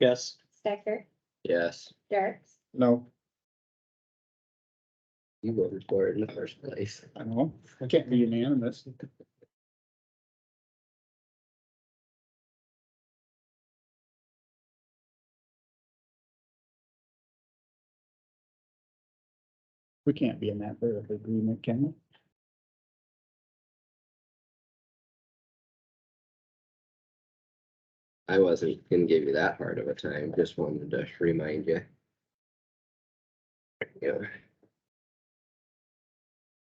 Yes. Stecker, Yes, Jerks, No, you voted for it in the first place. I don't know. It can't be unanimous. We can't be in that bit of agreement, can we? I wasn't gonna give you that hard of a time, just wanted to remind you. Yeah,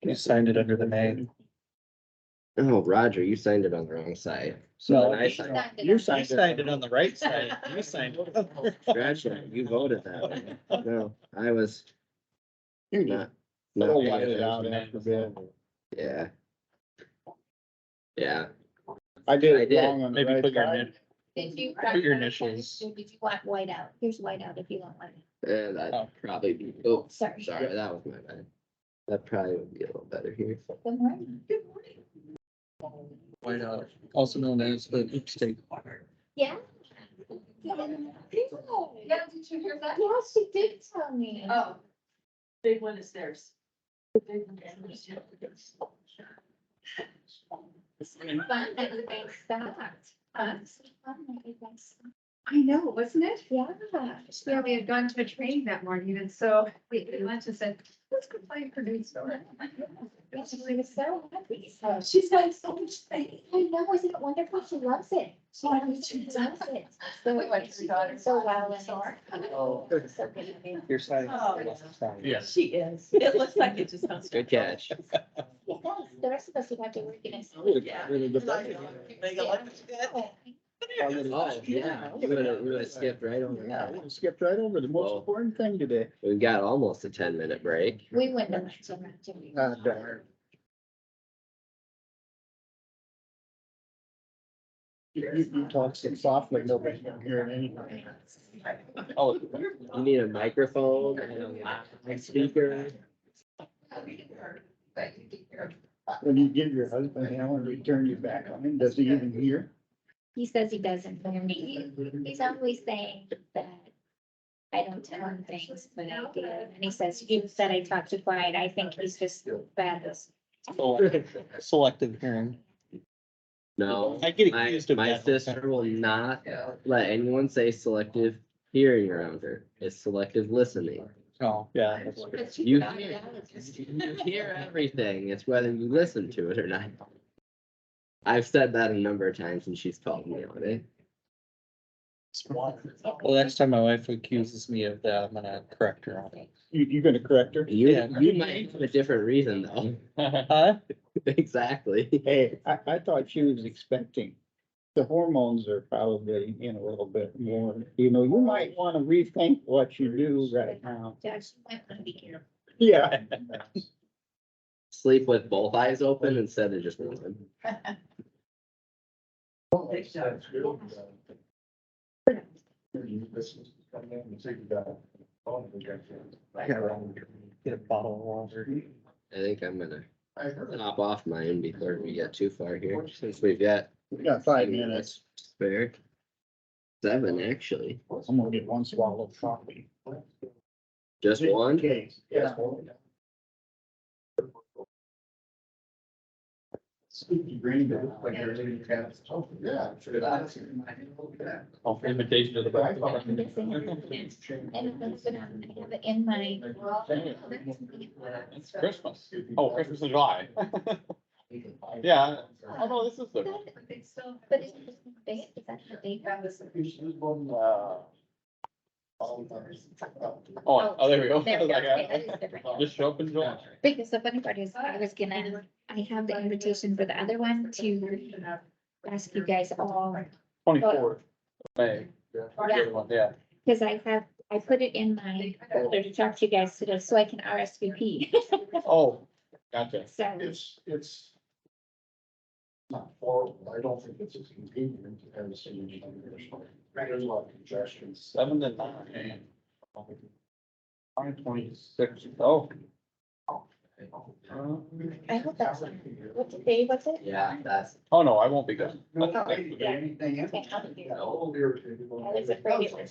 You signed it under the name. oh, Roger, you signed it on the wrong side. No, So then I you signed, signed it. you I signed it. signed it on the right side. You signed it. Gotcha, you voted that way. No, I was You not. not We'll paying let it out attention. after bid. Yeah. Yeah, I I did it did. wrong on the Maybe put right your side. Did you? Put your initials. Did you want whiteout? Here's whiteout if you want whiteout. and I'd Oh. probably be, oh, Sorry. sorry, that was my bad. That probably would be a little better here. Good morning. Good morning. White out, also known as the state. Yeah. Yeah, did you hear that? Yeah, she did tell me. Oh. Big one is theirs. The big one is theirs. Fun that you guys stopped. Huh? It's fun that you guys stopped. Um, I know, wasn't it? Yeah. Yeah, we had gone to a training that morning and so we we went and said, let's go play for news store. Yeah, she was so happy. So She's got so much faith. I know, isn't it wonderful? She loves it. Oh, She loves it. So We went to the daughter. So well. and it's- Oh. it's so good to be- Your side. Oh. Yes. She is. It looks like it just comes. Good catch. Oh, Yeah, that's- the rest of us would have to work in a. Yeah. Really good. Oh, yeah, we would have, we would have skipped right over Yeah, that. we Skipped right over the most Whoa. important thing today. We got almost a ten minute break. We wouldn't have left him out, Jimmy. Ah, darn. You, you- you talk so softly, nobody can hear anything. Oh, you need a microphone and a speaker. When you give your husband hell and return you back on him, does he even hear? He says he doesn't, but he, he's always saying that I don't tell him things, but I do. And he says, you said I talked too quiet. I think he's just bad. at Selective hearing. No, I get my, accused of my that. all the sister time. will not let anyone say selective hearing around her. It's selective listening. Oh, yeah. You hear, you hear everything. It's whether you listen to it or not. I've said that a number of times and she's called me on it. Well, next time my wife accuses me of that, I'm gonna correct her on You, you gonna correct her? You, Yeah. you might have a different reason though. it. Huh? Exactly. Hey, I, I thought she was expecting. The hormones are probably in a little bit more, you know, you might wanna rethink what you do right now. Josh, you might want to be careful. Yeah. Sleep with both eyes open instead of just one. Get a bottle of water. I think I'm gonna Top off mine before we get too far here, since we've got. We got five minutes. Spare. Seven, actually, I'm gonna get one swallow of coffee. just one. Okay, yeah. Spooky green, but it looks like they're leaving cats. Oh, yeah. Invitation to I'm guessing I have it. I don't know if I have it in my. It's Christmas. Oh, Christmas in July. Yeah. Oh, no, this is the. But is it the date? Is that the date? Oh, oh, there we go. There we go. Okay, that is Like, different. uh, Just show up in July. Because the funny part is, I was gonna, I have the invitation for the other one to ask you guys all, Twenty-fourth. May. Yeah. Yeah. because I have, I put it in my folder to talk to you guys today, so I can RSVP. Oh, gotcha. So, It's, it's. Not horrible, I don't think it's as convenient as. the original. There's a lot of congestion. Seven to nine. Nine twenty-six. Oh. I hope that's- what's the day, what's it? Yeah, that's, Oh, no, I won't be good. No, I didn't get anything. Okay, I'll do it. All irritated. I was afraid it was